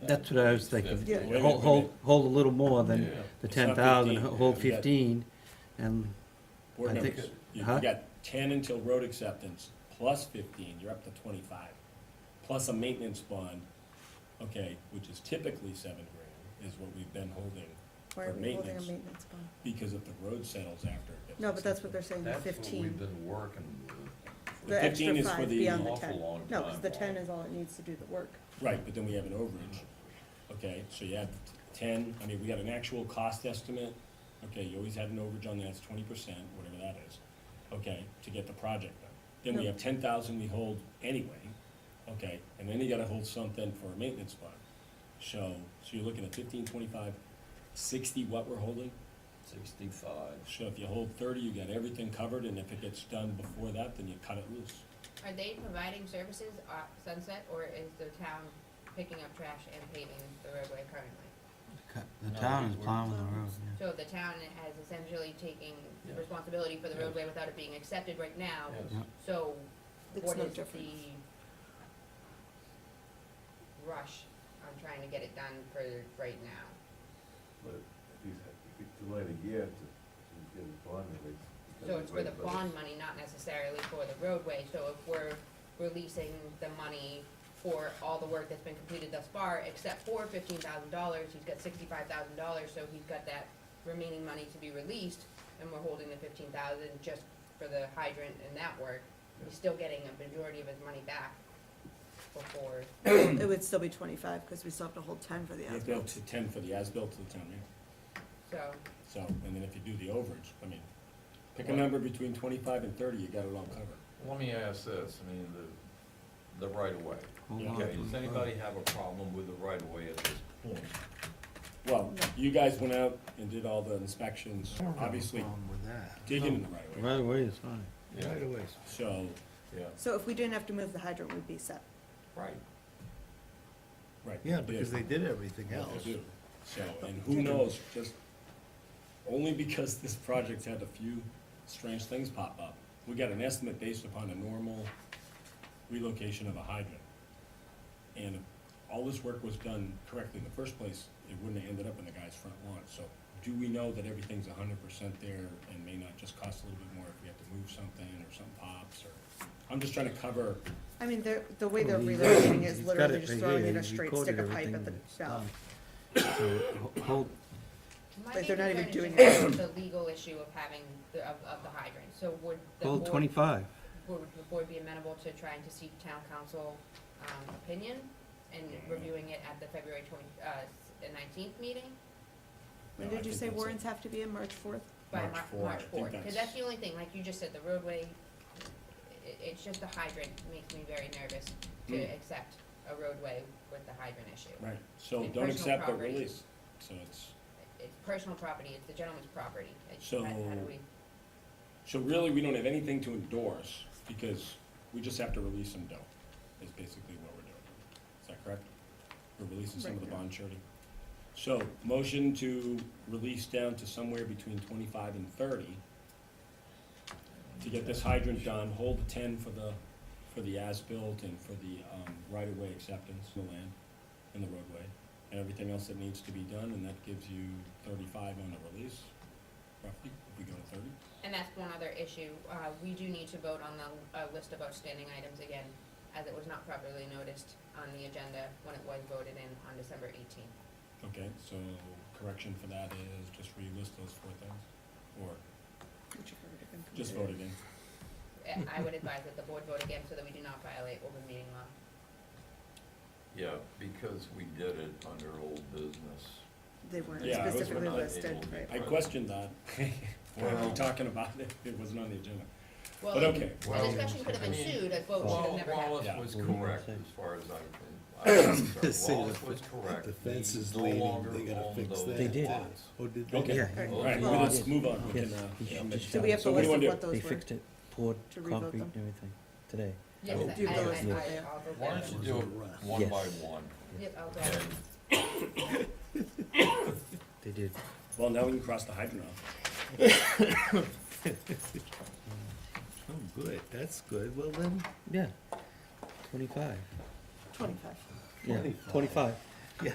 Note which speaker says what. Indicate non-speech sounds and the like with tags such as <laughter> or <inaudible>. Speaker 1: that's what I was thinking.
Speaker 2: Yeah.
Speaker 1: Hold- Hold, hold a little more than the
Speaker 3: It's not
Speaker 1: ten thousand,
Speaker 3: 15,
Speaker 1: hold
Speaker 3: yeah, you got-
Speaker 1: fifteen, and,
Speaker 3: Board
Speaker 1: I think-
Speaker 3: members, you
Speaker 1: huh?
Speaker 3: you got ten until road acceptance, plus fifteen, you're up to twenty-five, plus a maintenance bond, okay, which is typically seven grand, is what we've been holding,
Speaker 2: Why are we
Speaker 3: For
Speaker 2: holding a
Speaker 3: maintenance.
Speaker 2: maintenance bond?
Speaker 3: because if the road settles after. it gets
Speaker 2: No, but that's what they're saying,
Speaker 3: accepted.
Speaker 2: the
Speaker 4: That's what we've
Speaker 2: fifteen,
Speaker 4: been working with.
Speaker 3: The
Speaker 2: the extra
Speaker 3: 15 is for
Speaker 2: five
Speaker 3: the
Speaker 2: beyond the
Speaker 4: awful
Speaker 2: ten.
Speaker 4: long
Speaker 2: No, because the
Speaker 4: time
Speaker 2: ten is all it needs to do the
Speaker 3: <clears throat>
Speaker 2: work.
Speaker 3: Right, but then we have an overage, okay, so you add ten, I mean, we got an actual cost estimate, okay, you always had an overage on that, it's twenty percent, whatever that is, okay, to get the project done. Then we
Speaker 2: No.
Speaker 3: have ten thousand we hold anyway, okay, and then you gotta hold something for a maintenance bond. So, so you're looking at fifteen, twenty-five, sixty what we're holding,
Speaker 4: Sixty-five.
Speaker 3: so if you hold thirty, you got everything covered, and if it gets done before that, then you cut it loose.
Speaker 5: Are they providing services at Sunset, or is the town picking up trash and paving the roadway currently?
Speaker 1: cut- the
Speaker 4: No,
Speaker 1: town
Speaker 4: we-
Speaker 1: is
Speaker 4: we're-
Speaker 1: plowing the road, yeah.
Speaker 5: So the town has essentially taking
Speaker 4: Yeah.
Speaker 5: responsibility for the
Speaker 4: Yeah.
Speaker 5: roadway without it being accepted right now,
Speaker 4: Yes.
Speaker 5: so
Speaker 2: It's
Speaker 5: what
Speaker 2: no
Speaker 5: is the
Speaker 2: different.
Speaker 5: rush on trying to get it done for right now?
Speaker 6: But if you, if you delay a year to, to get a bond release.
Speaker 5: So it's for the bond money, not necessarily for the roadway, so if we're releasing the money for all the work that's been completed thus far, except for fifteen thousand dollars, he's got sixty-five thousand dollars, so he's got that remaining money to be released, and we're holding the fifteen thousand just for the hydrant and that work, he's still getting a majority of his money back before,
Speaker 2: It would still be twenty-five, because we still have to hold ten for the
Speaker 3: You have to go
Speaker 2: asphalt.
Speaker 3: to ten for the as-built to the town, yeah?
Speaker 5: so,
Speaker 3: So, and then if you do the overage, I mean, pick a number between twenty-five and thirty, you got it all covered.
Speaker 4: Let me ask this, I mean, the, the right of way.
Speaker 1: Hold
Speaker 3: Yeah.
Speaker 1: on
Speaker 4: Okay,
Speaker 1: to
Speaker 4: does
Speaker 1: the road.
Speaker 4: anybody have a problem with the right of way at this point?
Speaker 3: Well, you guys went out and did all the inspections,
Speaker 7: I don't have a
Speaker 3: obviously
Speaker 7: problem with that.
Speaker 3: digging in the right of way,
Speaker 1: Right away is fine.
Speaker 7: Right away.
Speaker 3: so,
Speaker 4: Yeah,
Speaker 2: So if we didn't have to move the hydrant, we'd be set.
Speaker 4: right.
Speaker 3: right.
Speaker 7: Yeah,
Speaker 3: they did
Speaker 7: because they did everything
Speaker 3: what
Speaker 7: else.
Speaker 3: they do. So, and who knows, just, only because this project's had a few strange things pop up. We got an estimate based upon a normal relocation of a hydrant. And if all this work was done correctly in the first place, it wouldn't have ended up in the guy's front lawn. So do we know that everything's a hundred percent there and may not just cost a little bit more if we have to move something or something pops or? I'm just trying to cover,
Speaker 2: I mean, they're, the way they're
Speaker 1: Well, he's-
Speaker 2: relocating is
Speaker 1: he's got
Speaker 2: literally
Speaker 1: it
Speaker 2: just
Speaker 1: right
Speaker 2: throwing
Speaker 1: here.
Speaker 2: in a
Speaker 1: He
Speaker 2: straight
Speaker 1: recorded
Speaker 2: stick of pipe at
Speaker 1: everything
Speaker 2: the
Speaker 1: that's
Speaker 2: valve.
Speaker 1: done. So, ho-
Speaker 2: <laughs>
Speaker 1: hold,
Speaker 5: my
Speaker 2: Like, they're
Speaker 5: main
Speaker 2: not
Speaker 5: concern
Speaker 2: even doing
Speaker 5: is just the legal issue of having, the- of, of the hydrant, so would the
Speaker 1: hold
Speaker 5: board
Speaker 1: twenty-five.
Speaker 5: would the board be amenable to trying to seek town council, um, opinion and reviewing it at the February twenty, uh, nineteenth meeting?
Speaker 2: When
Speaker 3: No, I
Speaker 2: did you
Speaker 3: think
Speaker 2: say
Speaker 3: that's it.
Speaker 2: warrants have to be in March fourth?
Speaker 5: by
Speaker 3: March
Speaker 5: Mar-
Speaker 3: four, I
Speaker 5: March
Speaker 3: think
Speaker 5: fourth,
Speaker 3: that's-
Speaker 5: cause that's the only thing, like you just said, the roadway, i- it's just the hydrant makes me very nervous to
Speaker 3: Mm.
Speaker 5: accept a roadway with the hydrant issue.
Speaker 3: right, so
Speaker 5: And
Speaker 3: don't
Speaker 5: personal
Speaker 3: accept but
Speaker 5: property.
Speaker 3: release. So it's,
Speaker 5: It's personal property, it's the gentleman's property, it's, how
Speaker 3: So-
Speaker 5: how do we,
Speaker 3: So really, we don't have anything to endorse, because we just have to release some dough, is basically what we're doing. Is that correct? We're releasing some of the
Speaker 2: Right.
Speaker 3: bond charity. So, motion to release down to somewhere between twenty-five and thirty, to get this hydrant done, hold the ten for the, for the as-built and for the, um, right-of-way acceptance, the land, and the roadway, and everything else that needs to be done, and that gives you thirty-five on the release, roughly, if we go to thirty.
Speaker 5: and that's one other issue, uh, we do need to vote on the, uh, list of outstanding items again, as it was not properly noticed on the agenda when it was voted in on December eighteenth.
Speaker 3: Okay, so correction for that is just relist those four things, or just vote again.
Speaker 5: I I would advise that the board vote again so that we do not violate open meeting law.
Speaker 4: Yeah, because we did it under old business.
Speaker 2: They weren't
Speaker 3: Yeah, those were
Speaker 2: specifically
Speaker 4: not
Speaker 2: listed,
Speaker 4: able to be
Speaker 2: right?
Speaker 3: I questioned that, when we were
Speaker 4: Well-
Speaker 3: talking about it, it wasn't on the agenda,
Speaker 5: Well,
Speaker 3: but okay.
Speaker 5: The discussion could have ensued, a vote should have
Speaker 4: Wall-
Speaker 5: never happened.
Speaker 4: Wallace
Speaker 3: Yeah.
Speaker 4: was
Speaker 1: What do you
Speaker 4: correct
Speaker 1: think?
Speaker 4: as far as I can. I'm
Speaker 7: They
Speaker 4: sorry,
Speaker 7: say
Speaker 4: Wallace
Speaker 7: the-
Speaker 4: was correct.
Speaker 7: the fence
Speaker 4: We
Speaker 7: is
Speaker 4: no
Speaker 7: leaning,
Speaker 4: longer
Speaker 7: they gotta
Speaker 4: own
Speaker 7: fix
Speaker 4: those
Speaker 7: that.
Speaker 1: They did.
Speaker 4: lots.
Speaker 7: Oh, did they?
Speaker 3: Okay,
Speaker 1: Yeah.
Speaker 3: all right,
Speaker 2: Well-
Speaker 3: well, let's move on, we
Speaker 1: Yes,
Speaker 3: can, uh,
Speaker 1: we
Speaker 3: yeah,
Speaker 1: should
Speaker 3: make-
Speaker 1: just
Speaker 2: Do we have
Speaker 3: so
Speaker 2: to
Speaker 3: what do
Speaker 2: list
Speaker 3: you
Speaker 2: of what
Speaker 3: wanna
Speaker 1: They
Speaker 2: those were?
Speaker 1: fixed it, poured
Speaker 2: To revote
Speaker 1: concrete
Speaker 2: them?
Speaker 1: and everything today.
Speaker 5: Yes,
Speaker 4: Oh.
Speaker 2: Do
Speaker 5: I, I,
Speaker 2: those vote
Speaker 5: I,
Speaker 2: there?
Speaker 5: I'll vote
Speaker 4: Why
Speaker 5: yes.
Speaker 4: don't you do it one
Speaker 1: Yes.
Speaker 4: by one?
Speaker 5: Yep, I'll go.
Speaker 4: And
Speaker 1: They did.
Speaker 3: do? Well, now we can cross the hydrant off,
Speaker 7: Oh, good, that's good. Well, then,
Speaker 1: Yeah, twenty-five.
Speaker 2: Twenty-five.
Speaker 1: Yeah, twenty-five.